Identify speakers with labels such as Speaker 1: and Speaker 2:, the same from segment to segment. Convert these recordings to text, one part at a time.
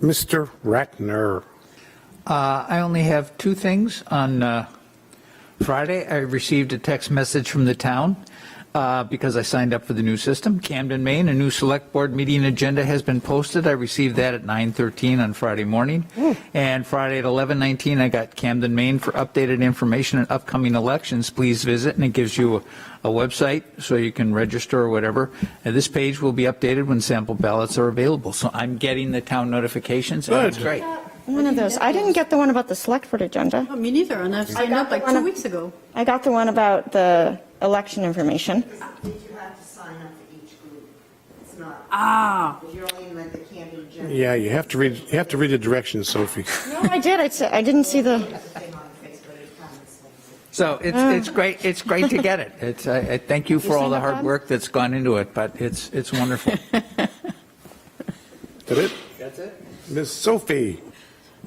Speaker 1: Mr. Ratner.
Speaker 2: Uh, I only have two things. On uh, Friday, I received a text message from the town uh, because I signed up for the new system. Camden, Maine, a new select board meeting agenda has been posted. I received that at 9:13 on Friday morning. And Friday at 11:19, I got Camden, Maine for updated information on upcoming elections. Please visit, and it gives you a a website so you can register or whatever. And this page will be updated when sample ballots are available. So I'm getting the town notifications. and it's
Speaker 1: Good.
Speaker 2: great.
Speaker 3: One of those. I didn't get the one about the select board agenda.
Speaker 4: No, Oh, Me neither, and I've signed up like two weeks ago.
Speaker 3: I got the one about the election information.
Speaker 5: Did you have to sign up for each group? It's not,
Speaker 4: Ah,
Speaker 5: if you're only like the candidate general,
Speaker 1: Yeah, you have to read, you have to read the directions, Sophie.
Speaker 3: No, I did. I said, I didn't see the,
Speaker 5: that's the thing on Facebook, it comes.
Speaker 2: So it's, it's great, it's great to get it. It's, I, I thank you for all
Speaker 3: seen
Speaker 2: the
Speaker 3: it,
Speaker 2: hard
Speaker 3: Bob?
Speaker 2: work that's gone into it, but it's, it's wonderful.
Speaker 1: That it? That's it. Miss Sophie.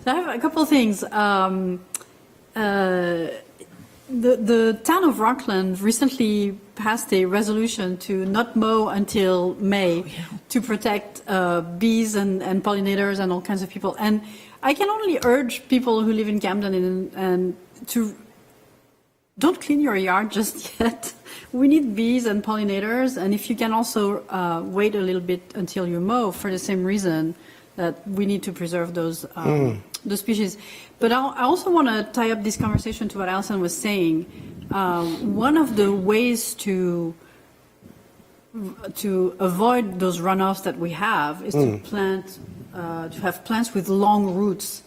Speaker 4: so I have a couple of things. Um, uh, The, the town of Rockland recently passed a resolution to not mow until May to protect uh, bees and and pollinators and all kinds of people. And I can only urge people who live in Camden and- and to don't clean your yard just yet. We need bees and pollinators, and if you can also uh, wait a little bit until you mow for the same reason that we need to preserve those um, the species. But I'll, I also want to tie up this conversation to what Alison was saying. Uh, one of the ways to to avoid those runoffs that we have is to plant, uh, to have plants with long roots.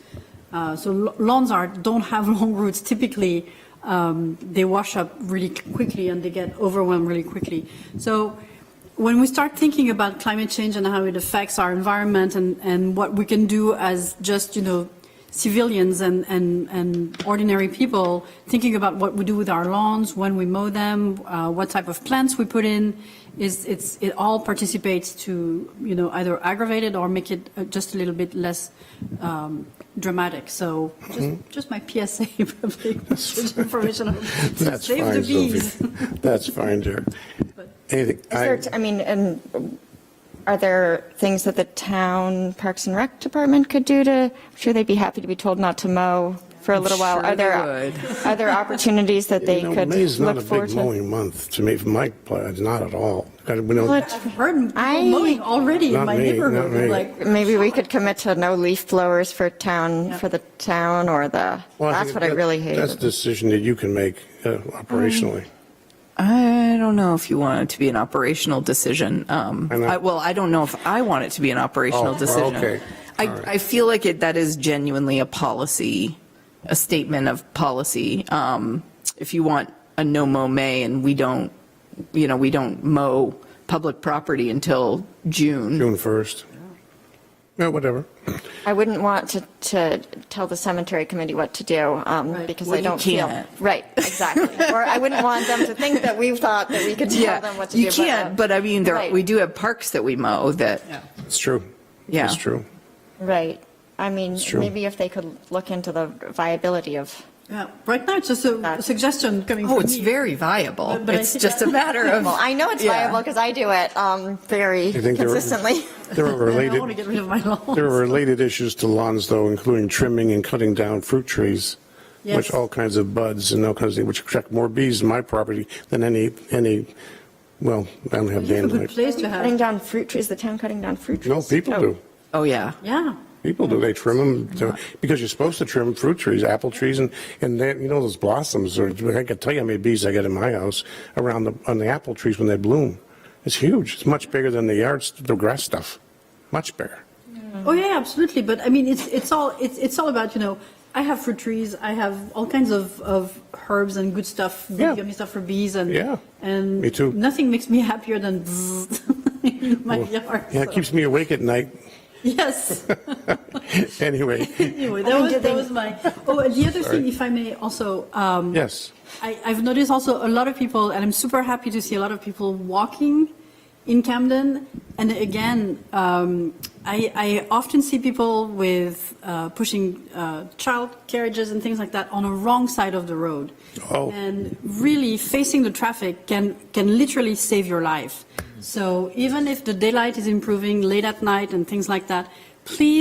Speaker 4: Uh, so lo- lawns are don't have long roots. Typically, um, they wash up really quickly and they get overwhelmed really quickly. So when we start thinking about climate change and how it affects our environment and, and what we can do as just you know civilians and, and, and ordinary people thinking about what we do with our lawns, when we mow them, uh, what type of plants we put in, is it's, it all participates to, you know, either aggravate it or make it uh, just a little bit less um, dramatic. So just,
Speaker 1: Hmm?
Speaker 4: just my PSA, public message information. on-
Speaker 1: That's
Speaker 4: Save the
Speaker 1: fine,
Speaker 4: bees.
Speaker 1: Sophie. That's fine, dear. Anything?
Speaker 3: is
Speaker 1: I-
Speaker 3: there, I mean, and are there things that the town Parks and Rec Department could do to, I'm sure they'd be happy to be told not to mow for a little while.
Speaker 6: sure
Speaker 3: Are there,
Speaker 6: they
Speaker 3: are there opportunities that they
Speaker 1: You know,
Speaker 3: could
Speaker 1: May's not a
Speaker 3: look forward
Speaker 1: big
Speaker 3: to?
Speaker 1: mowing month to me, from my part, not at all. I don't- we
Speaker 3: Well,
Speaker 1: don't-
Speaker 3: it's-
Speaker 4: I've heard people
Speaker 3: I-
Speaker 4: mowing already
Speaker 1: Not
Speaker 4: in my
Speaker 1: me, not
Speaker 4: neighborhood.
Speaker 1: me.
Speaker 4: Like,
Speaker 3: Maybe we could commit to no leaf blowers for town, for the town or the,
Speaker 1: Well,
Speaker 3: that's
Speaker 1: think
Speaker 3: what I
Speaker 1: that-
Speaker 3: really hate.
Speaker 1: That's a decision that you can make uh, operationally.
Speaker 3: Mm.
Speaker 6: I don't know if you want it to be an operational decision. Um,
Speaker 1: I know.
Speaker 6: I, well, I don't know if I want it to be an operational
Speaker 1: Oh,
Speaker 6: decision.
Speaker 1: okay.
Speaker 6: I,
Speaker 1: All right.
Speaker 6: I feel like it, that is genuinely a policy, a statement of policy. Um, if you want a no mow May and we don't, you know, we don't mow public property until June.
Speaker 1: June 1st.
Speaker 3: Oh.
Speaker 1: Yeah, whatever.
Speaker 3: I wouldn't want to, to tell the cemetery committee what to do, um, because
Speaker 6: Well,
Speaker 3: I
Speaker 6: you
Speaker 3: don't feel.
Speaker 6: can't.
Speaker 3: Right, exactly. Or I wouldn't want them to think that we thought that we could tell them what to do. uh,
Speaker 6: you can't, but I mean, there,
Speaker 3: Right.
Speaker 6: we do have parks that we mow that,
Speaker 1: It's true.
Speaker 6: Yeah.
Speaker 1: It's true.
Speaker 3: Right. I mean,
Speaker 1: true.
Speaker 3: maybe if they could look into the viability of,
Speaker 4: yeah, right now it's just a
Speaker 3: That's-
Speaker 4: suggestion coming from
Speaker 6: oh, it's
Speaker 4: me.
Speaker 6: very viable.
Speaker 4: But- but I
Speaker 6: It's
Speaker 4: think
Speaker 6: just a
Speaker 4: that-
Speaker 6: matter of.
Speaker 3: well, I know it's
Speaker 6: Yeah.
Speaker 3: viable because I do it, um, very
Speaker 1: I think they're-
Speaker 3: consistently.
Speaker 1: There are
Speaker 4: I don't want
Speaker 1: related,
Speaker 4: to get rid of my lawn.
Speaker 1: there are related issues to lawns, though, including trimming and cutting down fruit trees,
Speaker 4: Yes.
Speaker 1: which all kinds of buds and all kinds of, things, which attract more bees in my property than any, any, well, I don't have
Speaker 4: You have a good
Speaker 1: dandelions.
Speaker 4: place to
Speaker 3: Cutting
Speaker 4: have.
Speaker 3: down fruit trees, the town cutting down fruit trees?
Speaker 1: No, people
Speaker 3: Oh,
Speaker 1: do.
Speaker 6: Oh, yeah.
Speaker 4: Yeah.
Speaker 1: People do. They trim them because you're supposed to trim fruit trees, apple trees, and and they, you know those blossoms. Or I can tell you how many bees I get in my house around the on the apple trees when they bloom. It's huge. It's much bigger than the yards, the grass stuff. Much bigger.
Speaker 4: Oh yeah, absolutely. But I mean, it's it's all it's it's all about you know. I have fruit trees. I have all kinds of, of herbs and good stuff, good
Speaker 1: Yeah.
Speaker 4: yummy stuff for bees and
Speaker 1: Yeah.
Speaker 4: and
Speaker 1: Me too.
Speaker 4: Nothing makes me happier than bzzzt in my yard.
Speaker 1: Yeah, it
Speaker 4: so-
Speaker 1: keeps me awake at night.
Speaker 4: yes.
Speaker 1: Anyway,
Speaker 4: anyway, that was that was my. Oh, and the other thing, if I may, also. Um,
Speaker 1: yes.
Speaker 4: I, I've noticed also a lot of people, and I'm super happy to see a lot of people walking in Camden. And again, um, I, I often see people with uh, pushing uh, child carriages and things like that on the wrong side of the road.
Speaker 1: Oh.
Speaker 4: And really, facing the traffic can can literally save your life. So even if the daylight is improving late at night and things like that, please